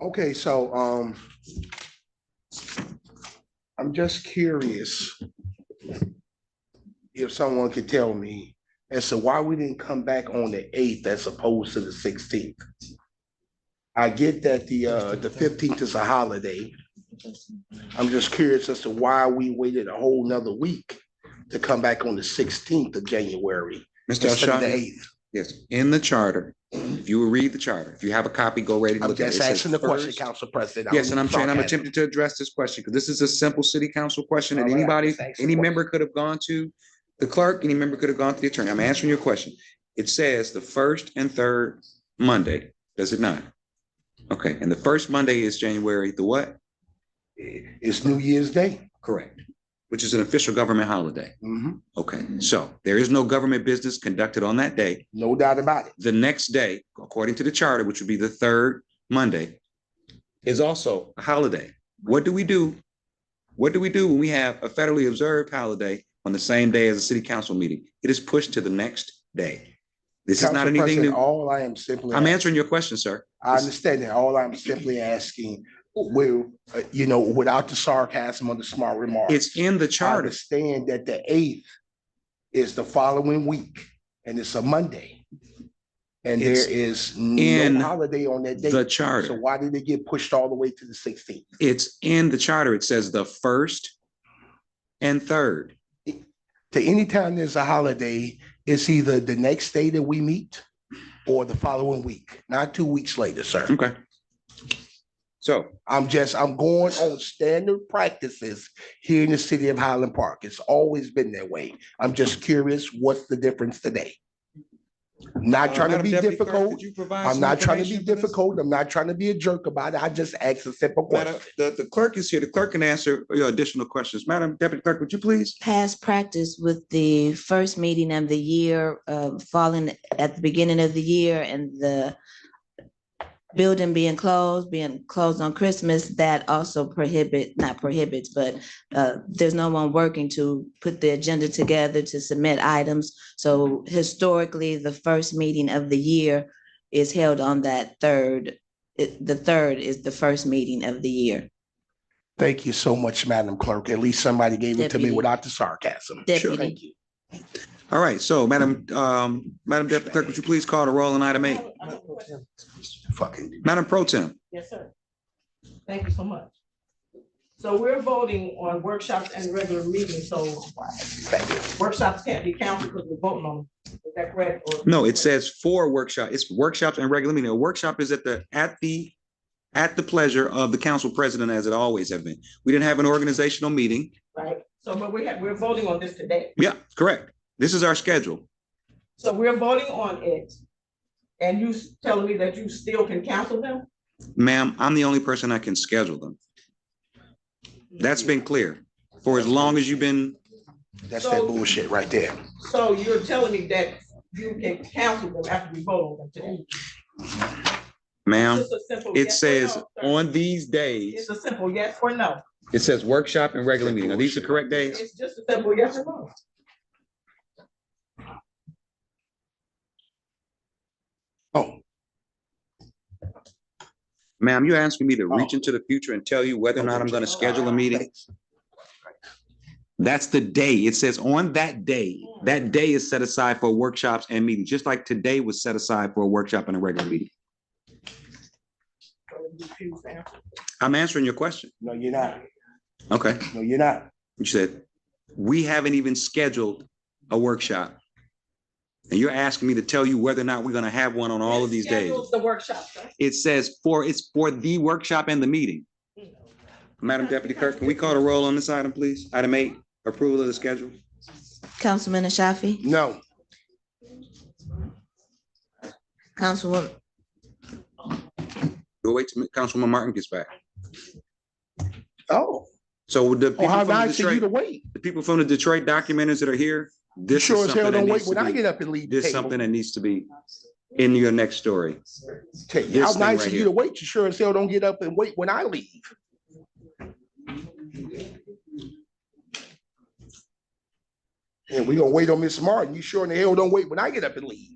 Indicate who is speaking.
Speaker 1: Okay, so, um, I'm just curious if someone could tell me as to why we didn't come back on the eighth as opposed to the sixteenth. I get that the, uh, the fifteenth is a holiday. I'm just curious as to why we waited a whole nother week to come back on the sixteenth of January
Speaker 2: Mr.
Speaker 1: instead of the
Speaker 2: Ashafi,
Speaker 1: eighth.
Speaker 2: yes, in the charter, if you will read the charter, if you have a copy, go ready to
Speaker 1: I'm
Speaker 2: look at it. It
Speaker 1: just
Speaker 2: says
Speaker 1: asking the question,
Speaker 2: first-
Speaker 1: Council President.
Speaker 2: Yes, and I'm
Speaker 1: trying
Speaker 2: trying, I'm attempting to address this question, because this is a simple city council question that
Speaker 1: All right,
Speaker 2: anybody,
Speaker 1: just ask the
Speaker 2: any
Speaker 1: question.
Speaker 2: member could have gone to the clerk, any member could have gone to the attorney. I'm answering your question. It says the first and third Monday, does it not? Okay, and the first Monday is January the what?
Speaker 1: It's New Year's Day.
Speaker 2: Correct. Which is an official government holiday.
Speaker 1: Mhm.
Speaker 2: Okay, so there is no government business conducted on that day.
Speaker 1: No doubt about it.
Speaker 2: the next day, according to the charter, which would be the third Monday, is also a holiday. What do we do? What do we do when we have a federally observed holiday on the same day as a city council meeting? It is pushed to the next day. This is not
Speaker 1: Council
Speaker 2: anything
Speaker 1: President,
Speaker 2: new.
Speaker 1: All I am simply,
Speaker 2: I'm answering your question, sir.
Speaker 1: I understand that. All I'm simply asking, will, uh, you know, without the sarcasm or the smart remarks.
Speaker 2: It's in the
Speaker 1: I
Speaker 2: charter.
Speaker 1: understand that the eighth is the following week and it's a Monday. And
Speaker 2: It's
Speaker 1: there is
Speaker 2: in
Speaker 1: no holiday on that
Speaker 2: The
Speaker 1: day. So
Speaker 2: charter.
Speaker 1: why did it get pushed all the way to the sixteenth?
Speaker 2: It's in the charter. It says the first and third.
Speaker 1: to any time there's a holiday, it's either the next day that we meet or the following week, not two weeks later, sir.
Speaker 2: Okay. So
Speaker 1: I'm just, I'm going on standard practices here in the city of Highland Park. It's always been that way. I'm just curious, what's the difference today?
Speaker 2: Uh,
Speaker 1: Not trying to be difficult. I'm not trying to be difficult. I'm not trying to be a jerk about it. I just asked a simple question.
Speaker 2: Madam, the, the clerk is here. The clerk can answer your additional questions. Madam Deputy Clerk, would you please?
Speaker 3: past practice with the first meeting of the year, uh, falling at the beginning of the year and the building being closed, being closed on Christmas, that also prohibit, not prohibits, but, uh, there's no one working to put the agenda together to submit items. So historically, the first meeting of the year is held on that third, it- the third is the first meeting of the year.
Speaker 1: Thank you so much, Madam Clerk. At least somebody gave it to me
Speaker 3: Deputy.
Speaker 1: without the sarcasm.
Speaker 3: Deputy.
Speaker 1: Thank you.
Speaker 2: All right, so Madam, um, Madam Deputy Clerk, would you please call the roll on item eight?
Speaker 1: Fucking
Speaker 2: Madam Pro Tem,
Speaker 4: Yes, sir. Thank you so much. So we're voting on workshops and regular meetings, so workshops can't be counted because we're voting on, them. is that correct? Or-
Speaker 2: no, it says for workshop, it's workshops and regular meeting. A workshop is at the, at the, at the pleasure of the council president, as it always have been. We didn't have an organizational meeting.
Speaker 4: Right, so but we have, we're voting on this today.
Speaker 2: Yeah, correct. This is our schedule.
Speaker 4: So we're voting on it. And you s- telling me that you still can cancel them?
Speaker 2: Ma'am, I'm the only person I can schedule them. That's been clear for as long as you've been
Speaker 1: That's that
Speaker 4: So-
Speaker 1: bullshit right there.
Speaker 4: So you're telling me that you can cancel them after we vote on them today?
Speaker 2: Ma'am,
Speaker 4: Just a simple
Speaker 2: it
Speaker 4: yes or no,
Speaker 2: says
Speaker 4: sir.
Speaker 2: on these
Speaker 4: It's
Speaker 2: days,
Speaker 4: a simple yes or no.
Speaker 2: it says workshop and regular meeting. Are these the correct days?
Speaker 4: It's just a simple yes or no.
Speaker 1: Oh,
Speaker 2: Ma'am, you're asking me to reach into the future and tell you whether or not I'm gonna schedule a meeting? That's the day. It says on that day, that day is set aside for workshops and meetings, just like today was set aside for a workshop and a regular meeting.
Speaker 4: So you refuse to answer.
Speaker 2: I'm answering your question.
Speaker 1: no, you're not.
Speaker 2: Okay,
Speaker 1: No, you're not.
Speaker 2: you said, we haven't even scheduled a workshop. And you're asking me to tell you whether or not we're gonna have one on all of these days.
Speaker 4: Schedules The workshop, sir.
Speaker 2: It says for, it's for the workshop and the meeting. Madam Deputy Clerk, can we call the roll on this item, please? Item eight, approval of the schedule.
Speaker 3: Councilman Ashafi?
Speaker 1: No,
Speaker 3: Councilwoman,
Speaker 2: We'll wait till Councilwoman Martin gets back.
Speaker 1: oh,
Speaker 2: So the
Speaker 1: oh,
Speaker 2: people
Speaker 1: how
Speaker 2: from the
Speaker 1: nice of you to
Speaker 2: Detroit,
Speaker 1: wait.
Speaker 2: the people from the Detroit documentaries that are here,
Speaker 1: You
Speaker 2: this is
Speaker 1: sure as hell
Speaker 2: something that
Speaker 1: don't wait
Speaker 2: needs
Speaker 1: when I
Speaker 2: to
Speaker 1: get
Speaker 2: be,
Speaker 1: up and leave. the
Speaker 2: this is
Speaker 1: table.
Speaker 2: something that needs to be in your next story.
Speaker 1: Tell you, How
Speaker 2: this
Speaker 1: nice
Speaker 2: thing right
Speaker 1: of you
Speaker 2: here.
Speaker 1: to wait. You sure as hell don't get up and wait when I leave. And we gonna wait on Miss Martin. You sure in the hell don't wait when I get up and leave.